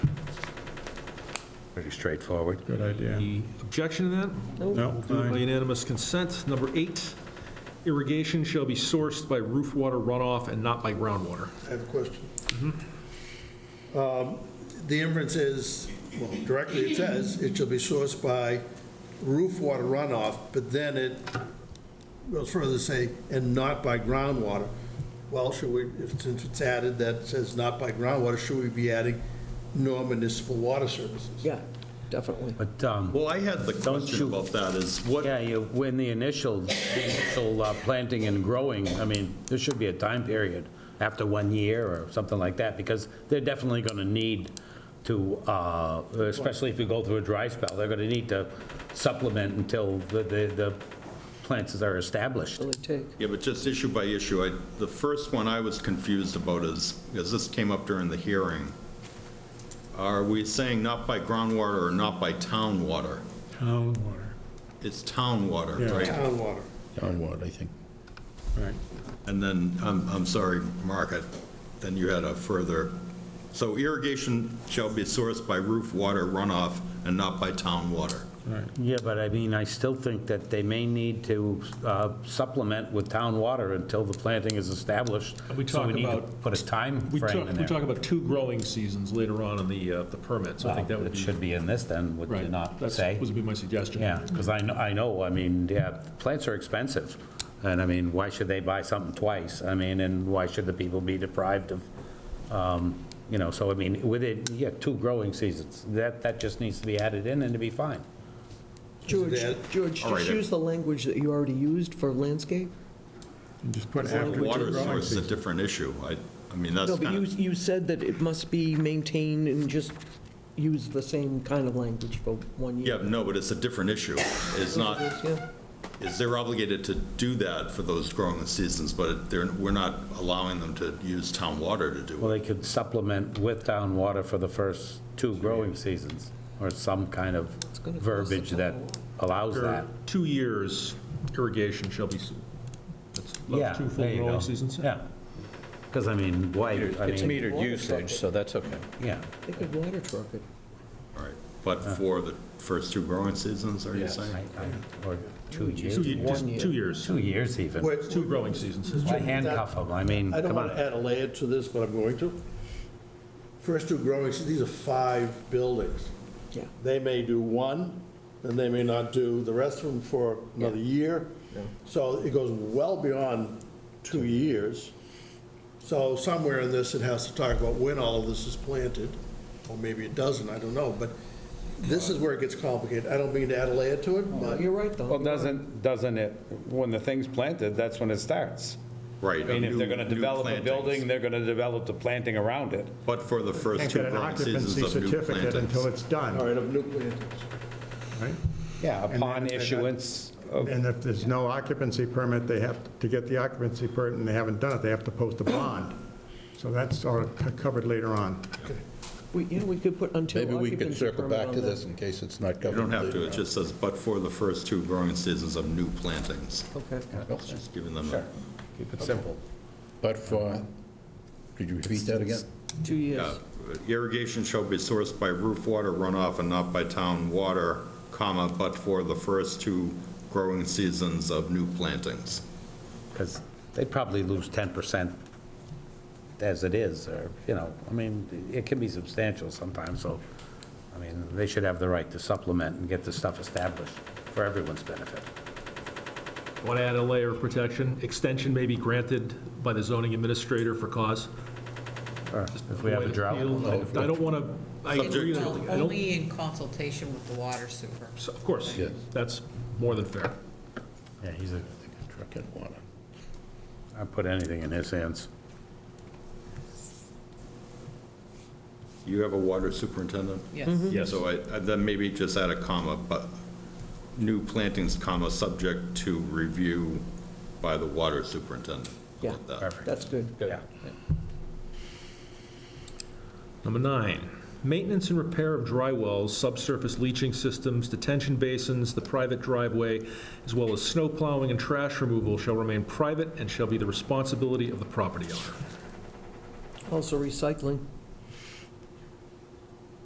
Pretty straightforward. Good idea. Any objection to that? No, Do it by aye. unanimous consent. Number eight, irrigation shall be sourced by roof water runoff and not by groundwater. I have a question. Um, The inference is, well, directly it says, it shall be sourced by roof water runoff, but then it goes further to say, and not by groundwater. Well, should we, if- since it's added that says not by groundwater, should we be adding nor municipal water services? Yeah, definitely. But, um, Well, I had the question about that is what, yeah, you, when the initial, initial uh, planting and growing, I mean, there should be a time period after one year or something like that, because they're definitely going to need to, uh, especially if you go through a dry spell, they're going to need to supplement until the, the, the plants are established. Will it take? yeah, but just issue by issue, I, the first one I was confused about is, because this came up during the hearing. Are we saying not by groundwater or not by town water? Town water. It's town water, Yeah. right? Town water. Town water, I think. Right. And then, I'm, I'm sorry, Mark, I- then you had a further, so irrigation shall be sourced by roof water runoff and not by town water. Yeah, but I mean, I still think that they may need to uh, supplement with town water until the planting is established. And we So talk need to about- Put a time We frame talk, in we there. talk about two growing seasons later on in the, uh, the permit, so I think that Well, would It be. should be in this then, would you Right, not that's- say? Would be my suggestion. Yeah, because I know, I know, I mean, yeah, plants are expensive. And I mean, why should they buy something twice? I mean, and why should the people be deprived of, um, you know, so I mean, with it, yeah, two growing seasons. That, that just needs to be added in and it'd be fine. Is George, it George, All right, just then. use the language that you already used for landscape. And just put after the Water growing source is a season. different issue. I, I mean, that's No, but kind you, of, you said that it must be maintained and just use the same kind of language for one yeah, year. no, but it's a different issue. It's not, Yeah. is they're obligated to do that for those growing seasons, but they're, we're not allowing them to use town water to do Well, it. they could supplement with town water for the first two growing seasons, or some kind of gonna cost verbiage the that town allows After that. two years, irrigation shall be, s- that's Yeah, that's two full there you go. growing seasons. Yeah, because I mean, why, I It's mean, metered usage, so that's okay. yeah. They could water truck it. All right. But for the first two growing seasons, are you I- saying? I- Or two years, Two, ye- just One year. two years, two years even. Wait, two growing seasons. Why handcuff them? I mean, I don't Mm, come want to on. add a layer to this, but I'm going to. First two growing, seasons, these are five buildings. Yeah. They may do one, then they may not do the rest of them for another year. So it goes well beyond two years. So somewhere in this, it has to talk about when all of this is planted, or maybe it doesn't, I don't know. But this is where it gets complicated. I don't mean to add a layer to it, but Uh, You're right, though. Well, doesn't, doesn't it, when the thing's planted, that's when it starts. Right. I mean, if they're going to develop a building, they're going to develop the planting around it. But for the first Can't two get an growing seasons occupancy of new certificate until plantings. it's done, all right, of new plantings. right? Oh. Yeah, And upon then if they- issuance of, And if there's no occupancy permit, they have, to get the occupancy permit, and they haven't done it, they have to post a bond. So that's sort of co- covered later on. We- Yeah, we could put until Maybe we could occupancy circle permit back on to that. this in case it's not covered. You don't have to, it just says, but for the first two growing seasons of new plantings. Okay. It's Just giving them a keep it simple. But for, could you repeat that again? Two Uh, years. Irrigation shall be sourced by roof water runoff and not by town water, comma, but for the first two growing seasons of new plantings. Because they'd probably lose 10% as it is, or, you know, I mean, it can be substantial sometimes, so, I mean, they should have the right to supplement and get the stuff established for everyone's benefit. Want to add a layer of protection? Extension may be granted by the zoning administrator for cause. Or If we have a drought. I don't want to, I agree, I don't- I don't, Only in consultation with the water super. so, of course, Yes. that's more than fair. Yeah, he's a, Truck and water. I put anything in his hands. You have a water superintendent? Yes. So I, I- then maybe just add a comma, but new plantings, comma, subject to review by the water superintendent. Yeah, Like that. that's good. Yeah. Number nine, maintenance and repair of dry wells, subsurface leaching systems, detention basins, the private driveway, as well as snow plowing and trash removal shall remain private and shall be the responsibility of the property owner. Also recycling.